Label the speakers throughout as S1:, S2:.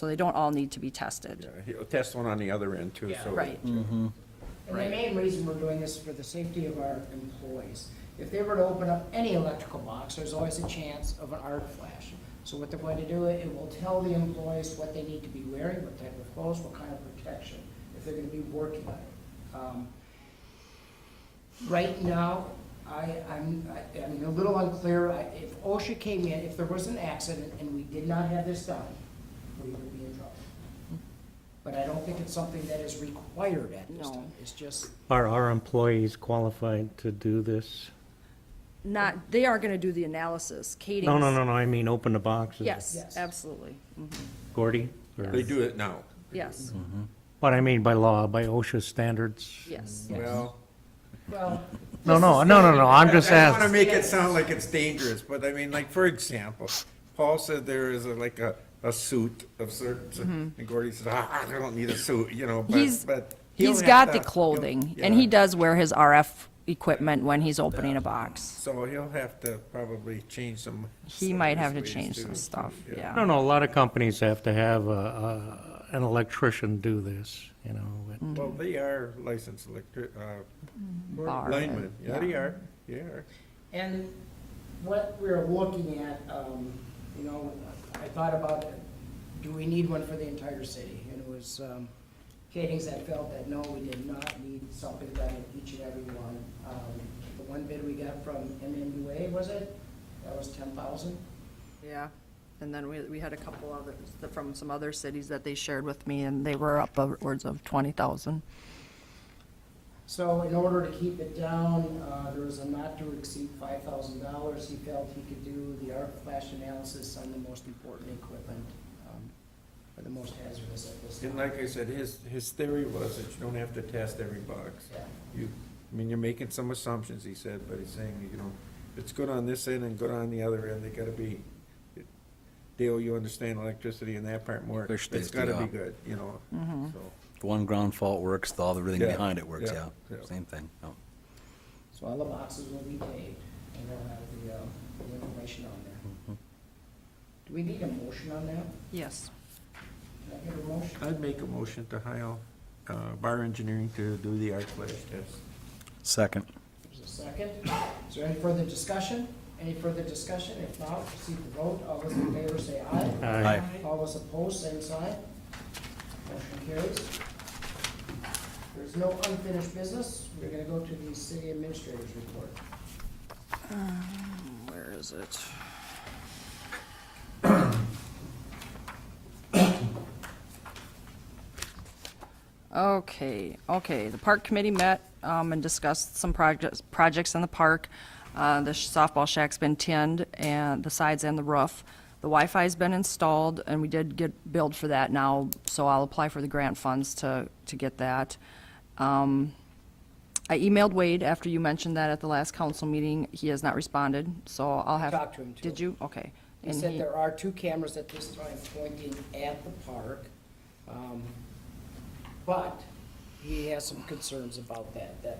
S1: So they don't all need to be tested.
S2: He'll test one on the other end too, so.
S1: Right.
S3: And the main reason we're doing this is for the safety of our employees. If they were to open up any electrical box, there's always a chance of an arc flash. So what they're going to do, it will tell the employees what they need to be wearing, what type of clothes, what kind of protection, if they're gonna be working on it. Um, Right now, I, I'm, I- I'm a little unclear, I- if OSHA came in, if there was an accident and we did not have this done, we would be in trouble. But I don't think it's something that is required at this
S1: No.
S3: time, it's just,
S4: Are our employees qualified to do this?
S1: Not, they are going to do the analysis. Kading's.
S4: No, no, no, no, I mean, open the boxes.
S1: Yes,
S3: Yes.
S1: absolutely.
S4: Gordy? or-
S2: They do it now.
S1: Yes,
S2: Mm.
S4: What I mean by law, by OSHA standards?
S1: yes.
S2: Well.
S3: well.
S4: No, no, no, no, no, I'm just
S2: I want to
S4: asking.
S2: make it sound like it's dangerous, but I mean, like, for example, Paul said there is a- like a, a suit of certain, and Gordy says, ah, I don't need a suit, you know, but,
S1: Mm-hmm. He's,
S2: but. he'll
S1: he's
S2: have
S1: got
S2: to-
S1: the
S2: he'll-
S1: clothing, and he
S2: yeah.
S1: does wear his RF equipment when he's opening a box.
S2: So he'll have to probably change some.
S1: He might have to
S2: ways
S1: change
S2: too.
S1: some stuff,
S4: No,
S1: yeah.
S4: no, a lot of companies have to have a- a, an electrician do this, you know. but-
S2: Well, they are licensed electric, uh,
S1: Are,
S2: linemen, yeah, they
S1: yeah.
S2: are, they are.
S3: And what we're looking at, um, you know, I thought about, do we need one for the entire city? And it was, um, Katings that felt that, no, we did not need something done in each and every one. Um, The one bid we got from MNUA, was it? That was ten thousand?
S1: Yeah, and then we, we had a couple others that- from some other cities that they shared with me, and they were up upwards of 20,000.
S3: So in order to keep it down, uh, there was a not to exceed five thousand dollars. He felt he could do the arc flash analysis on the most important equipment, um, or the most hazardous at this time.
S2: And like I said, his, his theory was that you don't have to test every box.
S3: Yeah.
S2: You, I mean, you're making some assumptions, he said, but he's saying, you know, if it's good on this end and good on the other end, they gotta be. Dale, you understand electricity in that part more,
S5: Fish
S2: it's
S5: tasty,
S2: gotta be
S5: yeah.
S2: good, you know, so.
S5: If One ground fault works, the other everything
S2: Yeah,
S5: behind it works,
S2: yeah,
S5: yeah.
S2: yeah.
S5: Same thing, no.
S3: So all the boxes will be tagged, and they'll have the, uh, the information on there. Do we need a motion on that?
S1: Yes.
S3: Can I get a motion?
S2: I'd make a motion to hire, uh, Bar Engineering to do the arc flash test.
S5: Second.
S3: There's a second. Is there any further discussion? Any further discussion? If not, proceed to vote. All those in favor say aye.
S4: Aye.
S3: All those opposed, same sign. Motion carries. There's no unfinished business. We're gonna go to the city administrator's report.
S1: Where is it? Okay, okay, the park committee met, um, and discussed some projects, projects in the park. Uh, the softball shack's been tinned, and the sides and the roof. The Wi-Fi's been installed, and we did get billed for that now, so I'll apply for the grant funds to, to get that. Um, I emailed Wade after you mentioned that at the last council meeting. He has not responded, so I'll have.
S3: talked to him, too.
S1: Did you? Okay.
S3: He
S1: And
S3: said
S1: he-
S3: there are two cameras at this time pointing at the park, um, but he has some concerns about that, that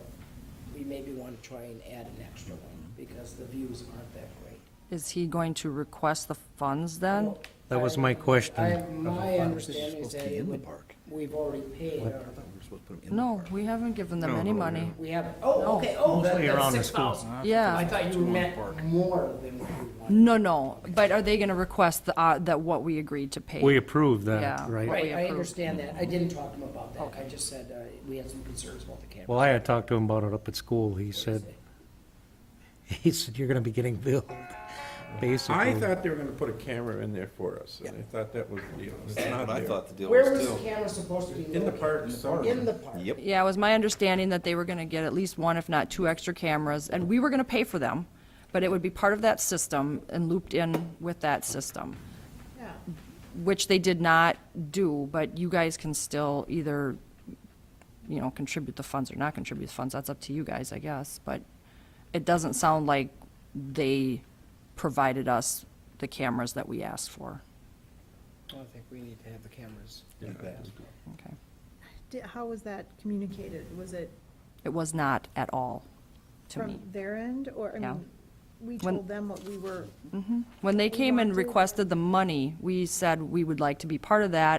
S3: we maybe want to try and add an extra one, because the views aren't that great.
S1: Is he going to request the funds then?
S4: That was my question.
S3: I, my understanding is
S5: Supposed to
S3: that
S5: be
S3: it
S5: in the
S3: would,
S5: park.
S3: we've already paid,
S5: I
S3: our-
S5: thought we were supposed to put 'em in the
S1: No,
S5: park.
S1: we haven't given them any money.
S3: we haven't, oh, okay, oh, that-
S4: Mostly
S3: that's
S4: around the
S3: six
S4: school.
S3: thousand. I
S1: Yeah.
S3: thought you meant more than what we wanted.
S1: No, no, but are they going to request the, uh, that what we agreed to pay?
S4: We approve that,
S1: Mm-hmm. Yeah.
S4: right?
S1: we
S3: Right, I
S1: approved.
S3: understand that, I didn't talk to him about that, I just said, uh, we had some concerns about the camera.
S4: Well, I had talked to him about it up at school. He said, he said, you're gonna be getting billed,
S2: I
S4: basically.
S2: thought they were gonna put a camera in there for us, and I thought that was the deal. It's not
S6: But I
S2: there.
S6: thought the deal
S3: Where
S6: was
S3: was the
S6: still.
S3: camera supposed to be located?
S2: In the park, somewhere.
S3: In the park?
S6: Yep.
S1: Yeah, it was my understanding that they were going to get at least one, if not two extra cameras, and we were going to pay for them, but it would be part of that system and looped in with that system. Which they did not do, but you guys can still either, you know, contribute the funds or not contribute the funds. That's up to you guys, I guess, but it doesn't sound like they provided us the cameras that we asked for.
S3: I don't think we need to have the cameras.
S1: Okay.
S7: Di- How was that communicated? Was it
S1: It was not at all to me.
S7: from their end, or, I
S1: Yeah.
S7: mean, we
S1: When-
S7: told them what we were
S1: When they came and
S7: wanted-
S1: requested the money, we said we would like to be part of that,